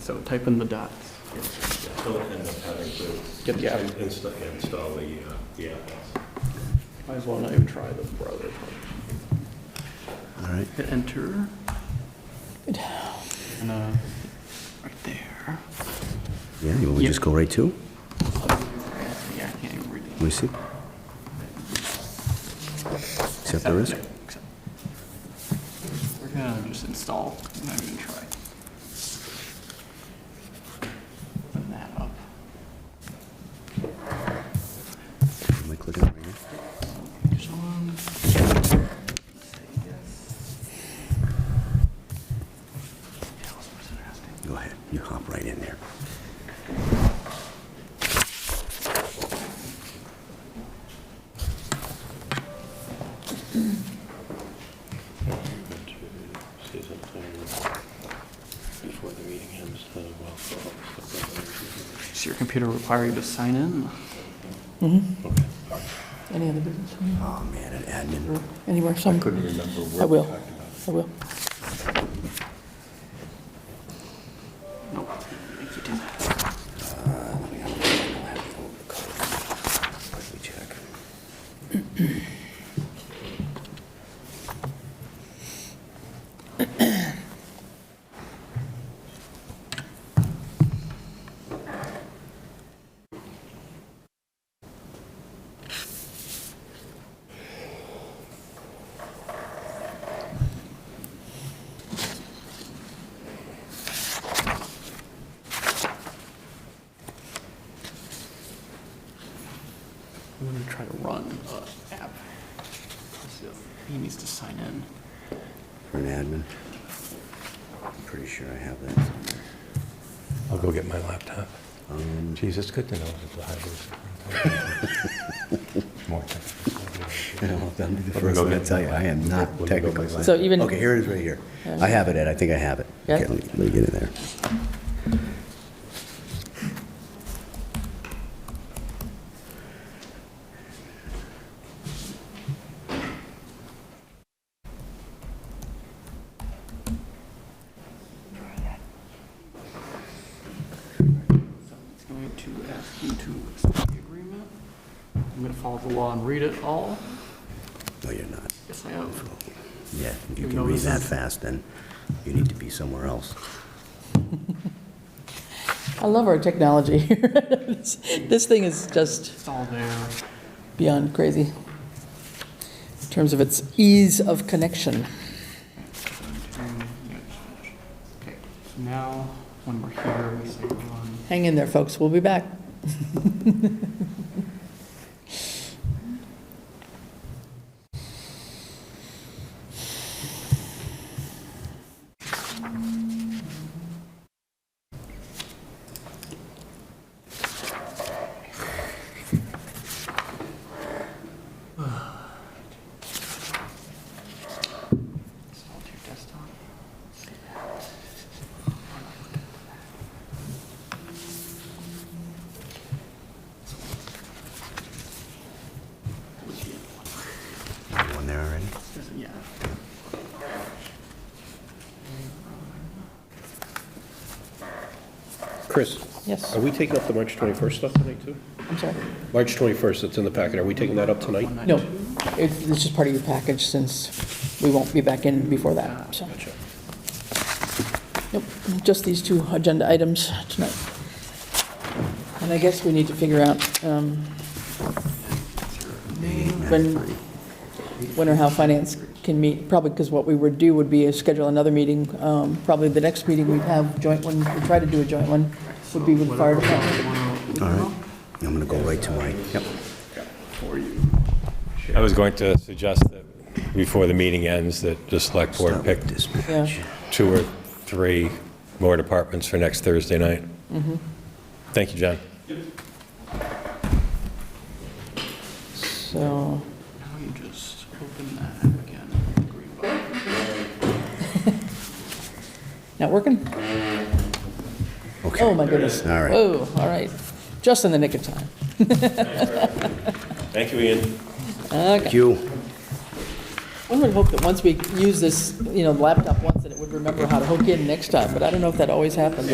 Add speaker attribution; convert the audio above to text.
Speaker 1: So type in the dots.
Speaker 2: He'll end up having to
Speaker 1: Get the app.
Speaker 2: insta- install the, uh, the app.
Speaker 1: Might as well not even try the browser.
Speaker 3: All right.
Speaker 1: Hit enter. And, uh, right there.
Speaker 3: Yeah, you want me to
Speaker 1: Yeah.
Speaker 3: just go right to?
Speaker 1: Yeah, I can't even read it.
Speaker 3: Let me see. Accept the risk?
Speaker 1: Yeah, accept. We're gonna just install, and not even try. Open that up.
Speaker 3: Am I clicking right here?
Speaker 1: Just one. Say yes. Yeah, what's the person asking?
Speaker 3: Go ahead, you hop right in there.
Speaker 2: See something before the meeting ends, uh, well, so-
Speaker 1: Does your computer require you to sign in?
Speaker 4: Any other business?
Speaker 3: Oh, man, an admin.
Speaker 4: Anywhere, some,
Speaker 2: Couldn't remember what.
Speaker 4: I will.
Speaker 2: we talked about.
Speaker 4: I will.
Speaker 1: Nope. I think you did that.
Speaker 3: Uh, Quickly check.
Speaker 1: I'm gonna try to run a app. So He needs to sign in.
Speaker 3: For an admin. I'm Pretty sure I have that somewhere.
Speaker 2: I'll go get my laptop.
Speaker 3: Um,
Speaker 2: Geez, it's good to know that the highway superintendent- It's more technical.
Speaker 3: I don't know if that'll be
Speaker 2: Let
Speaker 3: the
Speaker 2: me
Speaker 3: first
Speaker 2: go
Speaker 3: thing I
Speaker 2: get-
Speaker 3: tell you, I am
Speaker 2: Let me
Speaker 3: not
Speaker 2: go
Speaker 3: technically.
Speaker 2: get my-
Speaker 4: So even-
Speaker 3: Okay, here it is right here. I have it, Ed, I think I have it.
Speaker 4: Yeah.
Speaker 3: Okay, let me- let me get in there.
Speaker 1: So It's going to ask you to accept the agreement. I'm gonna follow the law and read it all.
Speaker 3: No, you're not.
Speaker 1: Yes, I have.
Speaker 3: Yeah, if you
Speaker 1: You
Speaker 3: can
Speaker 1: know
Speaker 3: read
Speaker 1: this
Speaker 3: that
Speaker 1: is-
Speaker 3: fast, then you need to be somewhere else.
Speaker 4: I love our technology here. This this thing is just
Speaker 1: It's all there.
Speaker 4: beyond crazy in terms of its ease of connection.
Speaker 1: Okay, so now, when we're here, we say run.
Speaker 4: Hang in there, folks, we'll be back.
Speaker 1: Install to your desktop.
Speaker 3: One there already?
Speaker 1: Yeah.
Speaker 5: Chris,
Speaker 4: Yes,
Speaker 5: are we taking up the March 21st stuff tonight, too?
Speaker 4: I'm sorry.
Speaker 5: March 21st, that's in the packet, are we taking that up tonight?
Speaker 4: No, it's it's just part of your package since we won't be back in before that, so. Nope, just these two agenda items tonight. And I guess we need to figure out um, when, when or how finance can meet, probably because what we would do would be is schedule another meeting, um, probably the next meeting we'd have joint one, we try to do a joint one, would be with the fire department.
Speaker 3: All right, I'm gonna go right to my, yep.
Speaker 2: I was going to suggest that before the meeting ends, that the select board
Speaker 3: Start
Speaker 2: pick
Speaker 3: with dispatch.
Speaker 4: Yeah,
Speaker 2: two or three more departments for next Thursday night. Thank you, John.
Speaker 4: so,
Speaker 1: Now you just open that app again, the green button.
Speaker 4: not working?
Speaker 3: Okay.
Speaker 4: Oh, my goodness.
Speaker 3: All right.
Speaker 4: Whoa, all right, just in the nick of time.
Speaker 2: Thank you, Ian.
Speaker 4: Okay.
Speaker 3: Thank you.
Speaker 4: One would hope that once we use this, you know, laptop once, that it would remember how to hook in next time, but I don't know if that always happens.